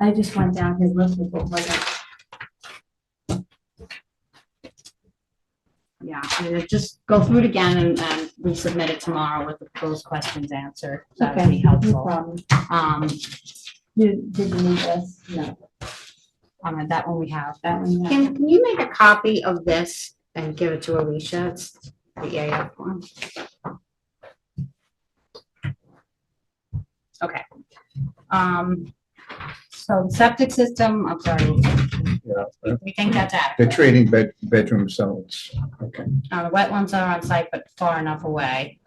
I just went down his list of what wasn't. Yeah, I mean, it just go through it again and, and resubmit it tomorrow with those questions answered. That would be Okay, no helpful. problem. Um, You, did you need this? No. um, that one we have. That one, yeah. Can, can you make a copy of this and give it to Alicia? It's the EAF form. Okay. Um, so septic system, I'm sorry, Yeah. we think that's They're adequate. trading bed, bedroom zones. Uh, the wetlands are on site, but far enough away.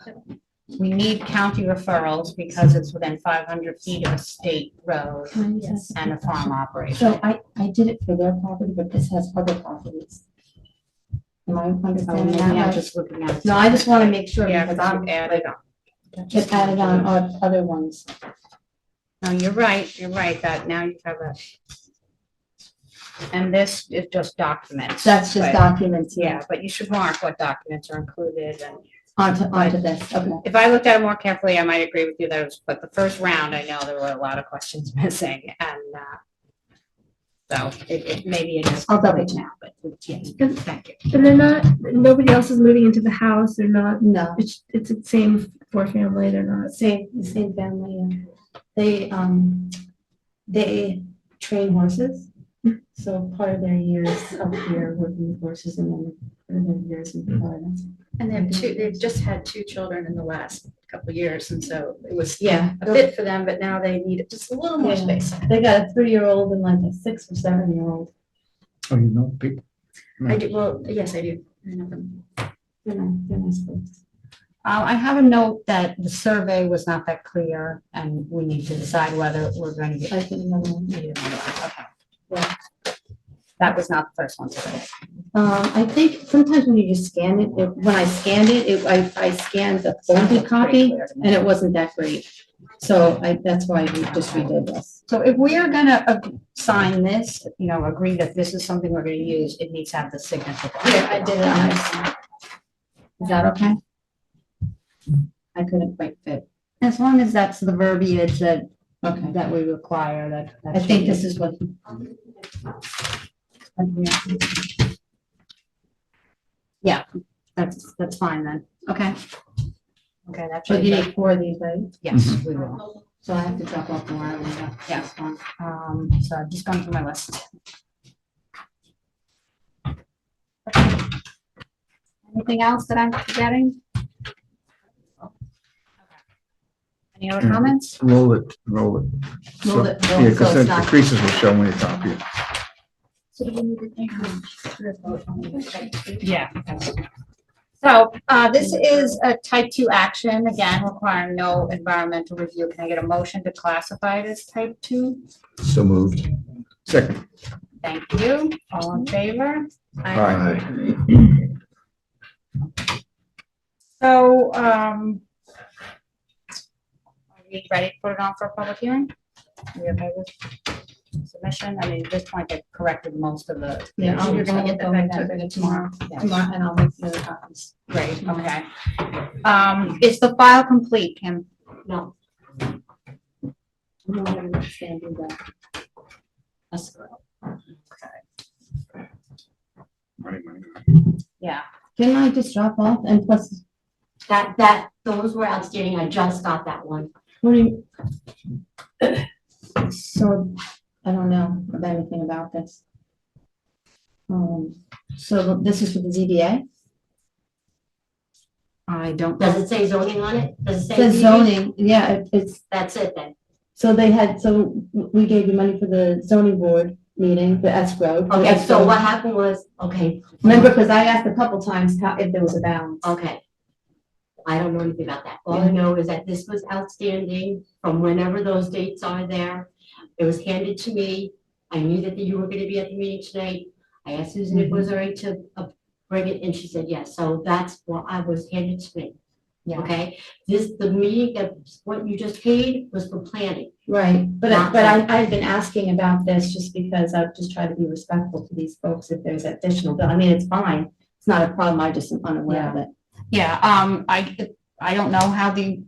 We need county referrals because it's within five hundred feet of a state road Yes. and a farm operation. So I, I did it for their property, but this has other properties. Am I Oh, understanding maybe that I'm right? just looking at. No, I just want to make sure Yeah, because because I'm, I'm like, added on. it added on oth- other ones. No, Oh, you're right, you're right, that now you have a. And this is just documents. That's just but- documents, yeah, Yeah, but you should mark what documents are included, and onto, onto this, okay. if I looked at it more carefully, I might agree with you that it was, but the first round, I know there were a lot of questions missing, and, uh, so it, it, maybe it is. I'll double check. now, But, yes, good, thank you. And they're not, nobody else is moving into the house. They're not, No, it's, it's the same four family. They're not. same, the same family, yeah. They, um, they train horses. So part of their years up here working with horses and then part of their years in Florida. And they have two, they've just had two children in the last couple years, and so it was Yeah, a fit for them, but now they need just a little more Yeah. space. they got a three-year-old and like a six or seven-year-old, Oh, you know, people. I do, well, yes, I do. I know them. you know, they're nice folks. Uh, I have a note that the survey was not that clear, and we need to decide whether we're going to get I think another one. Neither one of us, okay. Yeah. That was not the first one today. Um, I think sometimes when you just scan it, it- when I scanned it, it, I, I scanned the folded copy and it wasn't that great. So I, that's why we just redid this. So if we are gonna uh, sign this, you know, agree that this is something we're gonna use, it needs to have the signature. line. Yeah, I did it on this. Is that okay? I couldn't quite fit. As long as that's the verbiage that, Okay. that we require, that. that I think should this is what. be- Yeah, that's, that's fine then. Okay. Okay, that So should you be, need four of these, right? yes, we will. So I have to drop off more. and then- Yeah. Um, so I've just gone through my list. Anything else that I'm forgetting? Any other Mm. comments? Roll it, roll Roll it. it, So- roll it, Yeah, so because it's then the not- creases will show when it's up here. Yeah. So, uh, this is a type two action, again, requiring no environmental review. Can I get a motion to classify it as type two? So moved. Second. Thank you. All in favor? Aye. So, um, are we ready to put it on for a public hearing? Are we okay with submission? I mean, at this point, they've corrected most of the. Yeah, I'll- You're gonna I'll get that go back with to that tomorrow? Yeah, Tomorrow, and I'll make the other copies. great, okay. Um, is the file complete, Kim? No. No, I don't understand you guys. That's- Yeah. Didn't I just drop off and plus, That, that, those were outstanding. I just got that one. what do you? So, I don't know of anything about this. Um, so this is for the ZBA? I don't. Does it say zoning on it? Does it say? The ZBA? zoning, yeah, it- it's, That's it then. so they had, so we gave you money for the zoning board meeting, the escrow. the Okay, so escrow. what happened was, okay, Remember, because I asked a couple times how, if there was a balance. okay. I don't know anything about that. All I know is that this was outstanding from whenever those dates are there. It was handed to me. I knew that you were gonna be at the meeting tonight. I asked Susan if it was all right to uh, bring it, and she said yes. So that's what I was handed to me. Yeah. Okay, this, the meeting that, what you just paid was for planning. Right, but, I- Not but I, I've been asking about this just because I've just tried to be respectful to these folks if there's additional, but I mean, it's fine. It's not a problem, I just am unaware of it. Yeah, um, I, I don't know how the